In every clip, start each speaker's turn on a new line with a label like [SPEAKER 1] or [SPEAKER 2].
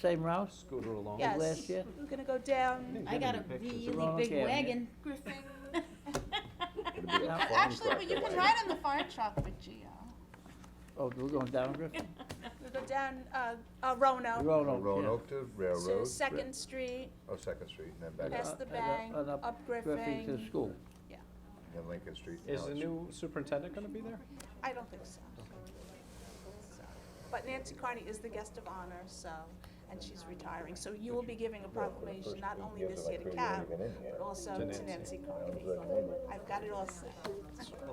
[SPEAKER 1] same route
[SPEAKER 2] Scooter
[SPEAKER 1] as
[SPEAKER 2] along.
[SPEAKER 3] Yes.
[SPEAKER 1] last year?
[SPEAKER 3] We're gonna go down,
[SPEAKER 4] I got a
[SPEAKER 1] wrong
[SPEAKER 4] really big
[SPEAKER 1] cabinet.
[SPEAKER 4] wagon.
[SPEAKER 5] Griffin.
[SPEAKER 4] It's
[SPEAKER 1] be a farm
[SPEAKER 5] Actually, but you can ride on the farm truck with Geo.
[SPEAKER 1] Oh, we're going down Griffin?
[SPEAKER 3] we go down, uh, uh, Roanoke,
[SPEAKER 1] Roanoke, yeah.
[SPEAKER 6] Roanoke to
[SPEAKER 3] so
[SPEAKER 6] Railroad.
[SPEAKER 3] Second Street,
[SPEAKER 6] Oh, Second Street, and then
[SPEAKER 1] And,
[SPEAKER 6] back
[SPEAKER 3] Past
[SPEAKER 6] up,
[SPEAKER 3] the
[SPEAKER 1] uh, and, uh,
[SPEAKER 3] bank,
[SPEAKER 1] and
[SPEAKER 3] up
[SPEAKER 1] Griffin to
[SPEAKER 3] Griffin.
[SPEAKER 1] school.
[SPEAKER 6] then Lincoln Street.
[SPEAKER 2] Is
[SPEAKER 6] now
[SPEAKER 2] the
[SPEAKER 6] it's-
[SPEAKER 2] new superintendent gonna be there?
[SPEAKER 3] I don't think so. So, But Nancy Carney is the guest of honor, so, and she's retiring, so you will be giving a proclamation, not only this year to Cap, but also
[SPEAKER 2] To
[SPEAKER 3] to
[SPEAKER 2] Nancy.
[SPEAKER 3] Nancy Carney. I've got it all set.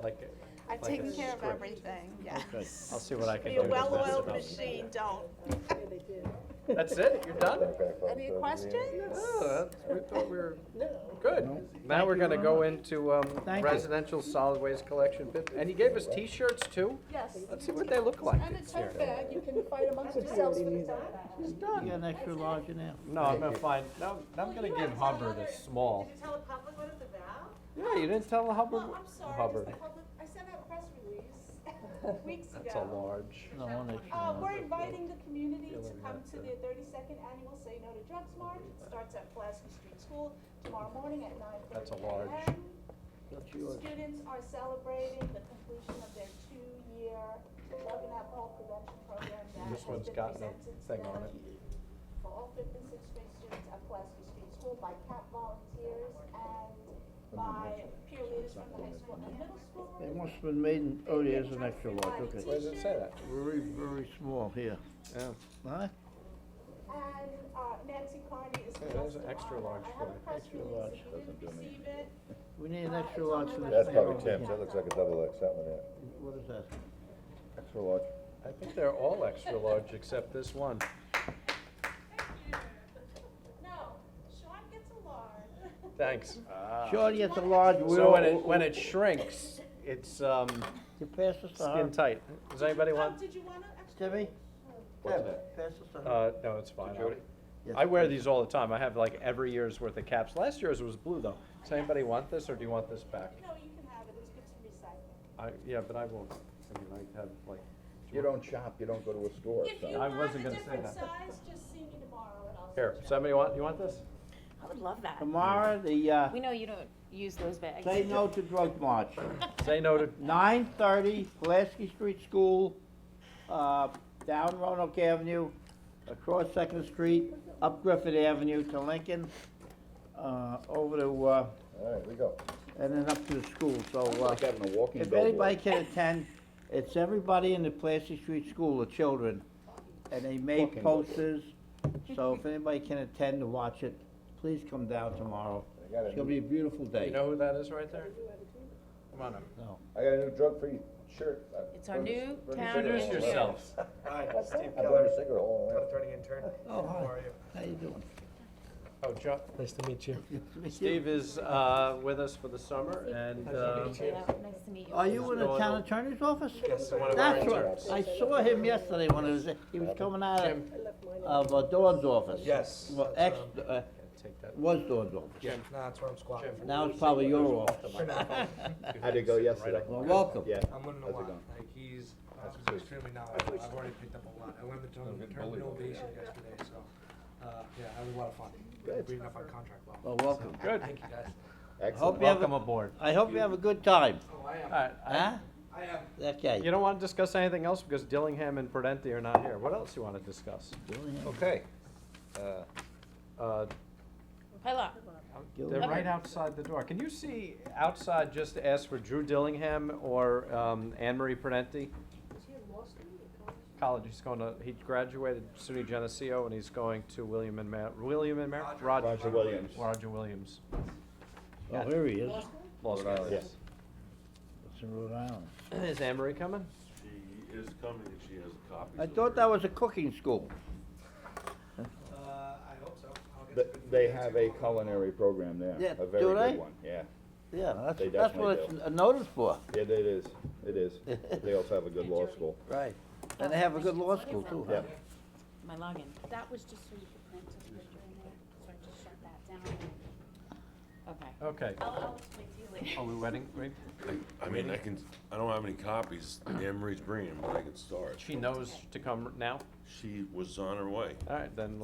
[SPEAKER 2] Like,
[SPEAKER 3] I've
[SPEAKER 2] Like a
[SPEAKER 3] taken care of
[SPEAKER 2] script.
[SPEAKER 3] everything, yes.
[SPEAKER 2] I'll see what I can
[SPEAKER 3] Be
[SPEAKER 2] do.
[SPEAKER 3] a
[SPEAKER 2] to mess it
[SPEAKER 3] well-oiled
[SPEAKER 2] up.
[SPEAKER 3] machine, don't.
[SPEAKER 2] That's it? You're done?
[SPEAKER 3] Any questions?
[SPEAKER 2] Oh, that's- we thought we were, good. Now we're gonna go into um,
[SPEAKER 1] Thank you.
[SPEAKER 2] residential solid waste collection bit, and he gave us T-shirts too?
[SPEAKER 5] Yes.
[SPEAKER 2] Let's see what they look like.
[SPEAKER 5] And a tote bag, you can fight amongst yourselves for the tote bag.
[SPEAKER 1] You got an extra large in there?
[SPEAKER 2] No, I'm gonna find, no, I'm gonna give Hubbard a small.
[SPEAKER 7] Did you tell the public what it's about?
[SPEAKER 2] Yeah, you didn't tell Hubbard,
[SPEAKER 7] Well, Oh, I'm sorry, it's
[SPEAKER 2] Hubbard.
[SPEAKER 7] the public, I sent out a press release weeks ago.
[SPEAKER 2] That's a large.
[SPEAKER 1] No, one extra
[SPEAKER 7] Uh,
[SPEAKER 1] large.
[SPEAKER 7] we're inviting the community to come
[SPEAKER 2] uh,
[SPEAKER 7] to the thirty-second annual Say No to Drugs March. It starts at Pulaski Street School tomorrow morning at nine thirty AM.
[SPEAKER 2] That's a large.
[SPEAKER 1] That's yours.
[SPEAKER 7] Students are celebrating the completion of their two-year drug and alcohol prevention program that
[SPEAKER 2] This
[SPEAKER 7] has been presented
[SPEAKER 2] one's
[SPEAKER 7] to
[SPEAKER 2] got no
[SPEAKER 7] them
[SPEAKER 2] thing on it.
[SPEAKER 7] for all fifth and sixth grade students at Pulaski Street School by CAP volunteers and by peer leaders from the high school and middle school.
[SPEAKER 1] It must have been made in, oh, there's an extra large,
[SPEAKER 2] Where
[SPEAKER 1] okay.
[SPEAKER 2] does it say that?
[SPEAKER 1] Very, very small here.
[SPEAKER 2] Yeah.
[SPEAKER 1] Huh?
[SPEAKER 7] And uh, Nancy Carney is the
[SPEAKER 2] Hey,
[SPEAKER 7] guest
[SPEAKER 2] there's an
[SPEAKER 7] of
[SPEAKER 2] extra
[SPEAKER 7] honor.
[SPEAKER 2] large
[SPEAKER 7] I have
[SPEAKER 2] for you.
[SPEAKER 7] a press
[SPEAKER 1] Extra large.
[SPEAKER 7] release, if you didn't receive it,
[SPEAKER 1] We need an extra large for this.
[SPEAKER 6] That's
[SPEAKER 1] thing
[SPEAKER 6] probably
[SPEAKER 1] over
[SPEAKER 6] Tim's,
[SPEAKER 1] here.
[SPEAKER 6] that looks like a double X, that one there.
[SPEAKER 1] What is that?
[SPEAKER 6] Extra large.
[SPEAKER 2] I think they're all extra large except this one.
[SPEAKER 7] no, Sean gets a large.
[SPEAKER 2] Thanks.
[SPEAKER 1] Shorty, it's a large,
[SPEAKER 2] Ah. So when it,
[SPEAKER 1] we'll,
[SPEAKER 2] when it shrinks, it's, um,
[SPEAKER 1] you pass this to her.
[SPEAKER 2] skin tight. Does anybody
[SPEAKER 7] Oh,
[SPEAKER 2] want,
[SPEAKER 7] did you want an extra?
[SPEAKER 1] Timmy?
[SPEAKER 6] What's
[SPEAKER 1] Timmy, Pass this to her.
[SPEAKER 2] uh, no, it's fine.
[SPEAKER 6] Jody?
[SPEAKER 1] Yes.
[SPEAKER 2] I wear these all the time. I have like every year's worth of caps. Last year's was blue though. Does anybody want this or do you want this back?
[SPEAKER 7] No, you can have it, it's good to recycle.
[SPEAKER 2] I, yeah, but I won't. I mean, I have like,
[SPEAKER 6] You don't shop, you don't go to a store,
[SPEAKER 7] If you
[SPEAKER 2] I
[SPEAKER 7] want a
[SPEAKER 2] wasn't gonna say
[SPEAKER 7] different
[SPEAKER 2] that.
[SPEAKER 7] size, just see me tomorrow and I'll.
[SPEAKER 2] here,
[SPEAKER 7] switch
[SPEAKER 2] does anybody want, you want this?
[SPEAKER 4] I would love that.
[SPEAKER 1] Tomorrow, the, uh,
[SPEAKER 4] We know you don't use those bags.
[SPEAKER 1] say no to drug march.
[SPEAKER 2] Say no to,
[SPEAKER 1] Nine thirty, Pulaski Street School, uh, down Roanoke Avenue, across Second Street, up Griffith Avenue to Lincoln, uh, over to, uh,
[SPEAKER 6] all right, we go.
[SPEAKER 1] and then up to the school, so, uh,
[SPEAKER 6] Like having a walking
[SPEAKER 1] if
[SPEAKER 6] billboard.
[SPEAKER 1] anybody can attend, it's everybody in the Pulaski Street School, the children, and they made
[SPEAKER 6] Walking billboard.
[SPEAKER 1] posters, so if anybody can attend to watch it, please come down tomorrow.
[SPEAKER 6] I got a
[SPEAKER 1] It's gonna
[SPEAKER 6] new-
[SPEAKER 1] be a beautiful day.
[SPEAKER 2] you know who that is right there? Come on up.
[SPEAKER 6] I got a new drug-free shirt. I
[SPEAKER 4] It's our
[SPEAKER 6] burned a-
[SPEAKER 4] new
[SPEAKER 6] burned
[SPEAKER 4] town
[SPEAKER 6] a cigarette
[SPEAKER 2] Introduce
[SPEAKER 6] hole.
[SPEAKER 4] engineer.
[SPEAKER 2] yourselves.
[SPEAKER 8] Hi, Steve
[SPEAKER 6] I burned
[SPEAKER 8] Keller,
[SPEAKER 6] a cigarette hole in there.
[SPEAKER 8] attorney intern.
[SPEAKER 1] Oh,
[SPEAKER 8] How
[SPEAKER 1] hi,
[SPEAKER 8] are you?
[SPEAKER 1] how you doing?
[SPEAKER 2] Oh, John,
[SPEAKER 8] Nice to meet you.
[SPEAKER 2] Steve is, uh, with us for the summer and, uh,
[SPEAKER 4] Yeah, Nice to meet you.
[SPEAKER 1] Are you in the
[SPEAKER 2] Going
[SPEAKER 1] town
[SPEAKER 2] on.
[SPEAKER 1] attorney's office?
[SPEAKER 8] Yes, one of our
[SPEAKER 1] That's
[SPEAKER 8] interns.
[SPEAKER 1] right. I saw him yesterday when he was, he was coming out of, of uh, Dawn's office.
[SPEAKER 8] Yes,
[SPEAKER 1] Well, ex,
[SPEAKER 8] that's, um,
[SPEAKER 1] uh,
[SPEAKER 2] take that.
[SPEAKER 1] was Dawn's office.
[SPEAKER 8] Jim, nah, that's where I'm squatting.
[SPEAKER 1] Now it's probably your office.
[SPEAKER 6] How'd it go yesterday?
[SPEAKER 1] Well, welcome.
[SPEAKER 6] Yeah.
[SPEAKER 8] I'm learning a lot. Like, he's uh, extremely knowledgeable. I've already picked up a lot. I learned the term, the term innovation yesterday, so, uh, yeah, I had a lot of fun. Reading up on contract law.
[SPEAKER 1] Well, welcome.
[SPEAKER 2] Good.
[SPEAKER 8] Thank you, guys.
[SPEAKER 6] Excellent.
[SPEAKER 1] Hope you have,
[SPEAKER 2] Welcome
[SPEAKER 1] a-
[SPEAKER 2] aboard.
[SPEAKER 1] I hope you have a good time.
[SPEAKER 8] Oh, I am,
[SPEAKER 2] Alright,
[SPEAKER 1] Huh?
[SPEAKER 8] I am.
[SPEAKER 2] you
[SPEAKER 1] Okay.
[SPEAKER 2] don't wanna discuss anything else because Dillingham and Prudenti are not here. What else you wanna discuss?
[SPEAKER 6] Okay. Uh,
[SPEAKER 2] Uh,
[SPEAKER 4] Hello.
[SPEAKER 2] They're right outside the door. Can you see outside, just ask for Drew Dillingham or um, Anne Marie Prudenti? College, he's going to, he graduated SUNY Geneseo and he's going to William and Mary, William and Mary?
[SPEAKER 8] Roger.
[SPEAKER 6] Roger Williams.
[SPEAKER 2] Roger Williams.
[SPEAKER 1] Oh, here he is.
[SPEAKER 2] Law
[SPEAKER 6] Rhode
[SPEAKER 2] School.
[SPEAKER 6] Island. Yes.
[SPEAKER 1] It's in Rhode Island.
[SPEAKER 2] Is Anne Marie coming?
[SPEAKER 9] She is coming and she has a copy.
[SPEAKER 1] I thought that was a cooking school.
[SPEAKER 8] Uh, I hope so. I'll get
[SPEAKER 6] th-
[SPEAKER 8] to good
[SPEAKER 6] They
[SPEAKER 8] news
[SPEAKER 6] have a
[SPEAKER 8] tomorrow.
[SPEAKER 6] culinary program there.
[SPEAKER 1] Yeah,
[SPEAKER 6] A very
[SPEAKER 1] do they?
[SPEAKER 6] good one, yeah.
[SPEAKER 1] Yeah, that's,
[SPEAKER 6] They
[SPEAKER 1] that's what
[SPEAKER 6] definitely
[SPEAKER 1] it's noted for.
[SPEAKER 6] Yeah, it is, it is. But They also have a good law school.
[SPEAKER 1] Right. And they have a good law school too.
[SPEAKER 6] Yeah.
[SPEAKER 4] My login.
[SPEAKER 10] That was just so you could print a picture in there, so I just shut that down.
[SPEAKER 4] Okay.
[SPEAKER 2] Okay.
[SPEAKER 10] I'll, I'll explain to you later.
[SPEAKER 2] Are we wedding? we-
[SPEAKER 9] I mean, I can, I don't have any copies. Anne Marie's bringing them, but I can start.
[SPEAKER 2] She knows to come now?
[SPEAKER 9] She was on her way.
[SPEAKER 2] All right, then